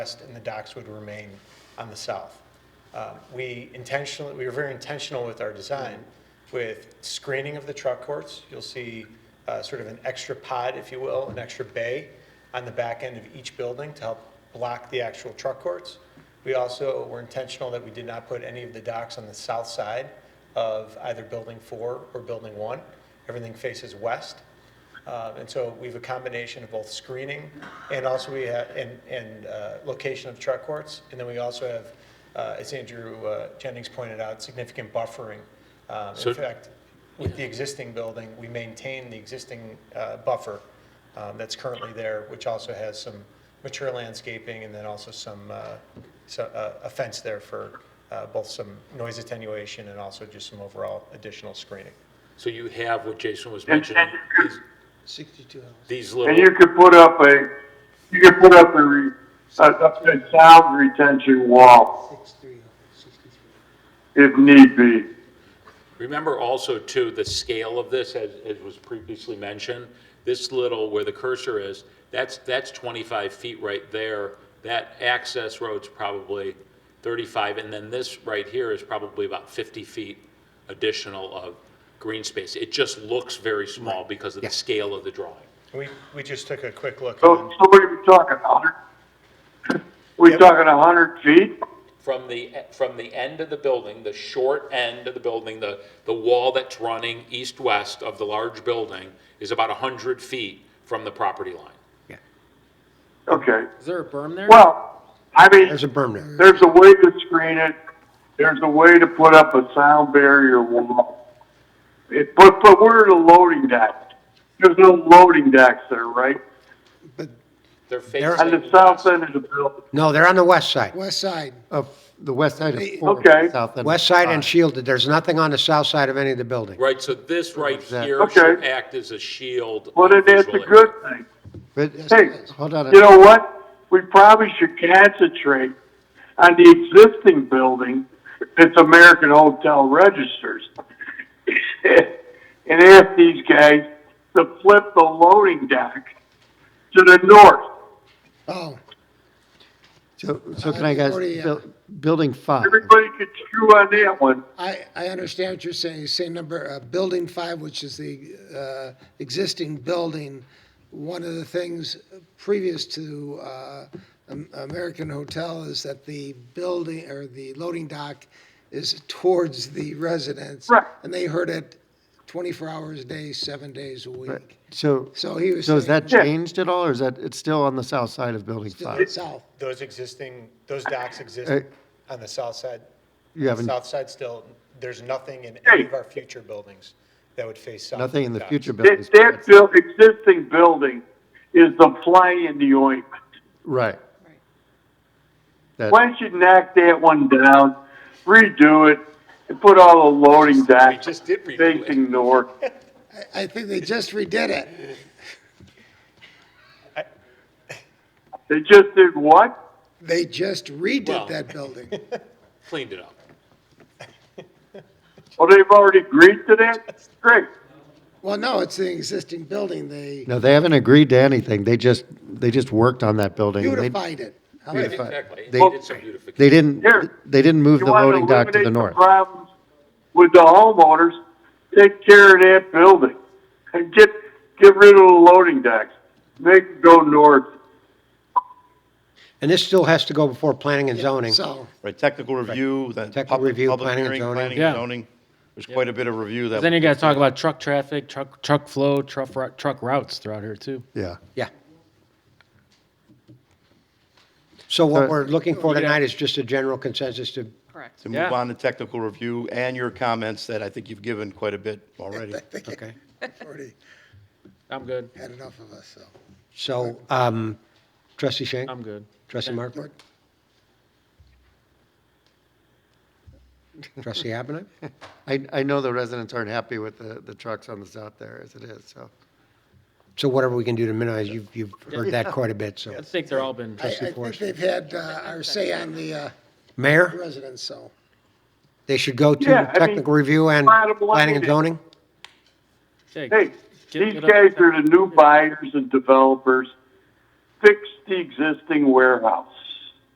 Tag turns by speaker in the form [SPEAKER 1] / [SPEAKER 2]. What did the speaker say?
[SPEAKER 1] west and the docks would remain on the south. Uh, We intentionally, we were very intentional with our design, with screening of the truck courts. You'll see uh, sort of an extra pod, if you will, an extra bay on the back end of each building to help block the actual truck courts. We also were intentional that we did not put any of the docks on the south side of either Building 4 or Building 1. Everything faces west. Uh, And so we have a combination of both screening and also we have, and, and uh, location of truck courts. And then we also have, uh, as Andrew uh, Jennings pointed out, significant buffering. Um,
[SPEAKER 2] So-
[SPEAKER 1] In fact, with the existing building, we maintain the existing uh, buffer um, that's currently there, which also has some mature landscaping and then also some, uh, so- uh, a fence there for uh, both some noise attenuation and also just some overall additional screening.
[SPEAKER 2] So you have what Jason was mentioning, is
[SPEAKER 3] 62 hours.
[SPEAKER 2] these
[SPEAKER 4] And
[SPEAKER 2] little,
[SPEAKER 4] you could put up a, you could put up a, re- a, a sound retention wall
[SPEAKER 3] 63 hours, 63.
[SPEAKER 4] if need be.
[SPEAKER 2] remember also too, the scale of this, as, as was previously mentioned, this little, where the cursor is, that's, that's 25 feet right there. That access road's probably 35, and then this right here is probably about 50 feet additional of green space. It just looks very small because of the scale of the drawing.
[SPEAKER 1] We, we just took a quick look.
[SPEAKER 4] So,
[SPEAKER 1] and-
[SPEAKER 4] so what are we talking, a hundred? We
[SPEAKER 1] Yep.
[SPEAKER 4] talking a hundred feet?
[SPEAKER 2] from the, from the end of the building, the short end of the building, the, the wall that's running east-west of the large building is about 100 feet from the property line.
[SPEAKER 4] Okay,
[SPEAKER 5] Is there a berm there?
[SPEAKER 4] well, I mean,
[SPEAKER 6] There's a berm there.
[SPEAKER 4] there's a way to screen it, there's a way to put up a sound barrier wall. It, but, but where are the loading decks? There's no loading decks there, right?
[SPEAKER 3] But
[SPEAKER 2] They're
[SPEAKER 6] There-
[SPEAKER 4] On
[SPEAKER 2] facing
[SPEAKER 4] the south end of the building,
[SPEAKER 6] No, they're on the west side
[SPEAKER 3] west side,
[SPEAKER 6] of, the west side of four.
[SPEAKER 4] Okay.
[SPEAKER 6] south end. West side and shielded. There's nothing on the south side of any of the buildings.
[SPEAKER 2] Right, so this right
[SPEAKER 6] Exactly.
[SPEAKER 2] here should
[SPEAKER 4] Okay.
[SPEAKER 2] act as a shield.
[SPEAKER 4] well, then that's a
[SPEAKER 2] visually.
[SPEAKER 4] good thing.
[SPEAKER 6] But, uh,
[SPEAKER 4] Hey,
[SPEAKER 6] hold on. a-
[SPEAKER 4] You know what? We probably should concentrate on the existing building that's American Hotel Registers. And ask these guys to flip the loading dock to the north.
[SPEAKER 3] oh,
[SPEAKER 6] So, so can I guys,
[SPEAKER 3] Forty, uh,
[SPEAKER 6] buil- building five,
[SPEAKER 4] Everybody could chew on that one.
[SPEAKER 3] I, I understand what you're saying, same number, uh, building five, which is the, uh, existing building. One of the things previous to, uh, Am- American Hotel is that the building, or the loading dock is towards the residents.
[SPEAKER 4] Right.
[SPEAKER 3] And they heard it twenty-four hours a day, seven days a week.
[SPEAKER 6] so,
[SPEAKER 3] So he was
[SPEAKER 6] so is
[SPEAKER 3] saying
[SPEAKER 6] that
[SPEAKER 4] Yeah.
[SPEAKER 6] changed at all, or is that, it's still on the south side of building
[SPEAKER 3] to the
[SPEAKER 6] five?
[SPEAKER 3] south.
[SPEAKER 1] Those existing, those docks exist
[SPEAKER 6] Hey.
[SPEAKER 1] on the south side.
[SPEAKER 6] You haven't,
[SPEAKER 1] South side still, there's nothing in any of our future buildings that would face south.
[SPEAKER 6] nothing in the
[SPEAKER 1] docks.
[SPEAKER 6] future buildings,
[SPEAKER 4] That, that buil- existing building is the fly in the ointment.
[SPEAKER 6] right? That,
[SPEAKER 4] Why don't you knock that one down, redo it, and put all the loading
[SPEAKER 2] We
[SPEAKER 4] docks
[SPEAKER 2] just did redo it.
[SPEAKER 4] facing north?
[SPEAKER 3] I, I think they just redid it.
[SPEAKER 4] They just did what?
[SPEAKER 3] They just
[SPEAKER 2] Well-
[SPEAKER 3] redid that building.
[SPEAKER 2] Cleaned it up.
[SPEAKER 4] Oh, they've already agreed to that? Great.
[SPEAKER 3] Well, no, it's the existing building. They
[SPEAKER 6] no, they haven't agreed to anything. They just, they just worked on that building. and they-
[SPEAKER 3] beautified it. How about-
[SPEAKER 6] Beautified.
[SPEAKER 2] Exactly.
[SPEAKER 6] They-
[SPEAKER 2] They did some beautification.
[SPEAKER 6] They didn't,
[SPEAKER 4] Here.
[SPEAKER 6] they didn't move
[SPEAKER 4] You
[SPEAKER 6] the
[SPEAKER 4] want
[SPEAKER 6] loading dock to
[SPEAKER 4] eliminate
[SPEAKER 6] the north.
[SPEAKER 4] Problems with the homeowners, take care of that building. And get, get rid of the loading docks. Make it go north.
[SPEAKER 6] And this still has to go before planning and zoning.
[SPEAKER 3] So,
[SPEAKER 7] Right, technical review, then
[SPEAKER 6] Technical
[SPEAKER 7] public,
[SPEAKER 6] review,
[SPEAKER 7] public
[SPEAKER 6] planning and
[SPEAKER 7] hearing,
[SPEAKER 6] zoning.
[SPEAKER 7] planning
[SPEAKER 5] Yeah.
[SPEAKER 7] and zoning. There's quite a bit of review that.
[SPEAKER 5] Then you gotta talk about truck traffic, truck, truck flow, truck, ru- truck routes throughout here too.
[SPEAKER 6] Yeah.
[SPEAKER 5] Yeah.
[SPEAKER 6] So what
[SPEAKER 3] Uh,
[SPEAKER 7] So-
[SPEAKER 6] we're looking for tonight is just a general consensus to,
[SPEAKER 8] Correct.
[SPEAKER 7] To move
[SPEAKER 5] Yeah.
[SPEAKER 7] on to technical review and your comments that I think you've given quite a bit already.
[SPEAKER 5] Okay,
[SPEAKER 3] already
[SPEAKER 5] I'm good,
[SPEAKER 3] had enough of us, so.
[SPEAKER 6] so, um, trustee Shank?
[SPEAKER 5] I'm good.
[SPEAKER 6] Trustee Markwart? Trustee Abinant?
[SPEAKER 9] I, I know the residents aren't happy with the, the trucks on the south there as it is, so.
[SPEAKER 6] So whatever we can do to minimize, you've, you've heard that quite a bit, so.
[SPEAKER 5] I think they're all been,
[SPEAKER 3] I, I think they've had uh, our say on the uh,
[SPEAKER 6] Mayor,
[SPEAKER 3] residents, so.
[SPEAKER 6] they should go
[SPEAKER 4] Yeah, I
[SPEAKER 6] to
[SPEAKER 4] mean,
[SPEAKER 6] technical review and
[SPEAKER 4] bottom line
[SPEAKER 6] planning and
[SPEAKER 4] is-
[SPEAKER 6] zoning?
[SPEAKER 4] Hey,
[SPEAKER 5] hey, get-
[SPEAKER 4] these
[SPEAKER 5] get up-
[SPEAKER 4] guys are the new buyers and developers. Fix the existing warehouse.